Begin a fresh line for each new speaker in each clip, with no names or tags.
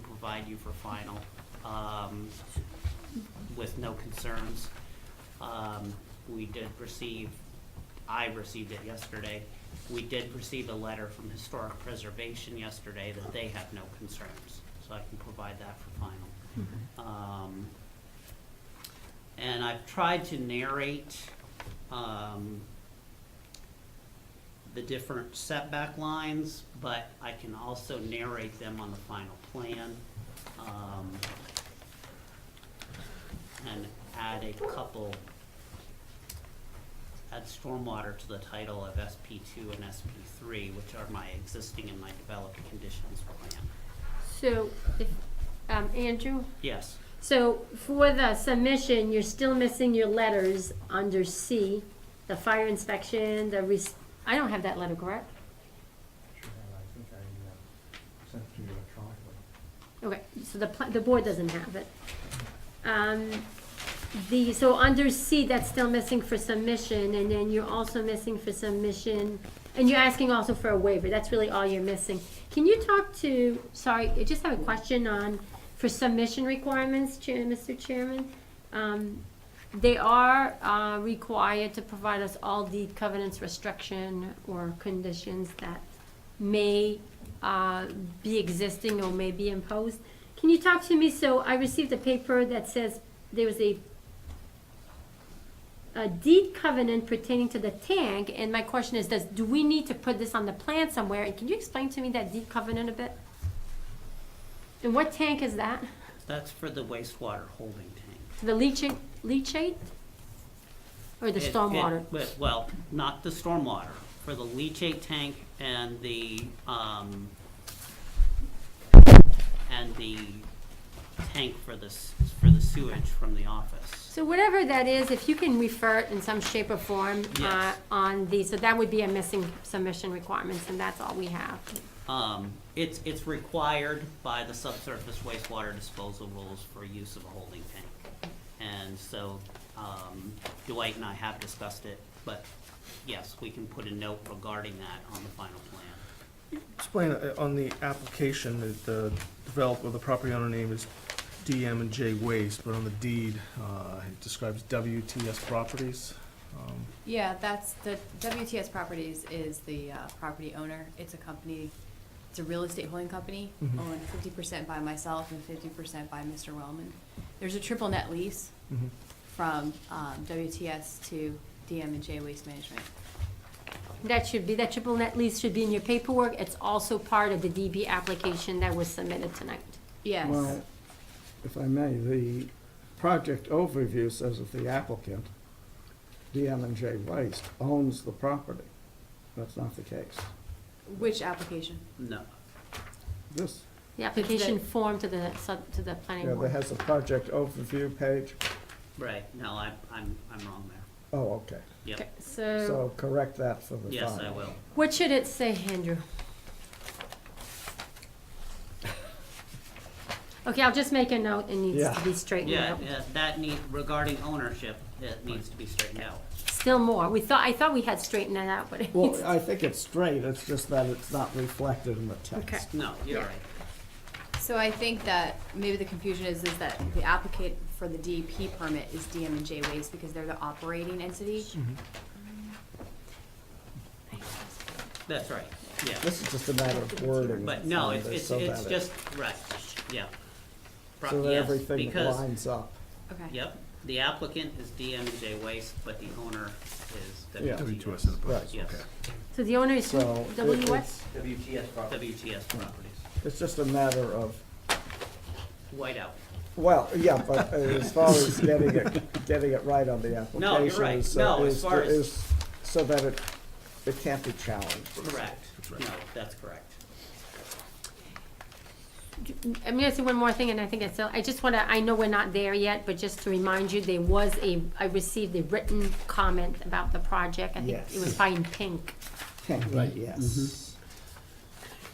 provide you for final, um, with no concerns. Um, we did receive, I received it yesterday, we did receive a letter from Historic Preservation yesterday that they have no concerns, so I can provide that for final. Um, and I've tried to narrate, um, the different setback lines, but I can also narrate them on the final plan. um, And add a couple, add stormwater to the title of SP two and SP three, which are my existing and my developed conditions plan.
So, if, um, Andrew,
Yes,
so for the submission, you're still missing your letters under C, the fire inspection, the re, I don't have that letter, correct?
And I think I uh, sent it to you electronically.
Okay, so the, pla- the board doesn't have it. Um, the, so under C, that's still missing for submission, and then you're also missing for submission, and you're asking also for a waiver, that's really all you're missing. Can you talk to, sorry, I just have a question on, for submission requirements, Chair, Mr. Chairman? Um, they are, uh, required to provide us all deed covenants, restriction, or conditions that may uh, be existing or may be imposed. Can you talk to me, so I received a paper that says there was a a deed covenant pertaining to the tank, and my question is, does, do we need to put this on the plan somewhere? And can you explain to me that deed covenant a bit? And what tank is that?
that's for the wastewater holding tank.
The leachate, leachate? Or the
It- it-
stormwater?
but- Well, not the stormwater, for the leachate tank and the, um, and the tank for the, s- for the sewage from the office.
So whatever that is, if you can refer it in some shape or form uh,
Yes.
on the, so that would be a missing submission requirements, and that's all we have.
Um, it's, it's required by the subsurface wastewater disposal rules for use of a holding tank. And so, um, Dwight and I have discussed it, but yes, we can put a note regarding that on the final plan.
Explain, uh, on the application, that the developer, the property owner name is DM and J Waste, but on the deed, uh, it describes WTS Properties. Um,
Yeah, that's, the WTS Properties is the uh, property owner. It's a company, it's a real estate holding company,
Mhm.
owned fifty percent by myself and fifty percent by Mr. Wellman. There's a triple net lease
mhm.
from um, WTS to DM and J Waste Management.
That should be, that triple net lease should be in your paperwork. It's also part of the DB application that was submitted tonight.
Yes,
Well, if I may, the project overview says that the applicant, DM and J Waste, owns the property. That's not the case.
which application?
No,
This,
The application form to the, sub- to the
yeah,
planning
there
board.
has a project overview page.
right, no, I'm, I'm, I'm wrong there.
Oh, okay.
Okay,
Yep,
So,
So correct that for the file.
yes, I will.
what should it say, Andrew? Okay, I'll just make a note. It needs to
Yeah.
be straightened
Yeah,
out.
yeah, that need, regarding ownership, it needs to be straightened out.
Still more. We thought, I thought we had straightened that out, but it's.
Well, I think it's straight, it's just that it's not reflected in the
Okay.
text.
No, you're right.
So I think that maybe the confusion is, is that the applicant for the DEP permit is DM and J Waste because they're the operating entity.
That's right, yeah.
This is just a matter of wording.
But no, it's,
It's
it's,
so
it's
that it-
just, right, yeah. Pro-
So that
yes,
everything
because-
lines up.
Okay.
Yep, the applicant is DMJ Waste, but the owner is
Yeah.
WTS.
WTS Enterprises,
Yes,
okay.
So the owner is who?
So it-
W what?
it's-
WTS property.
WTS Properties,
It's just a matter of
whiteout.
Well, yeah, but as far as getting it, getting it right on the
No, you're
application
right.
is,
No, as
is,
far as-
is, so that it, it can't be challenged.
correct,
right.
no, that's correct.
I'm gonna say one more thing, and I think I still, I just wanna, I know we're not there yet, but just to remind you, there was a, I received a written comment about the project. I think it was
Yes.
probably in pink.
Right. Yes.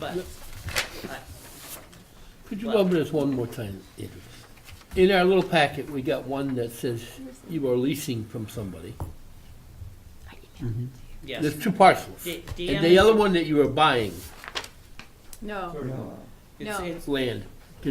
But, uh,
Could you go over this one more time, Andrew? In our little packet, we got one that says you are leasing from somebody.
I emailed it.
yes,
There's two parcels.
D- DM
And the other one that you are buying,
No,
No,
it's,
No.
it's,
land.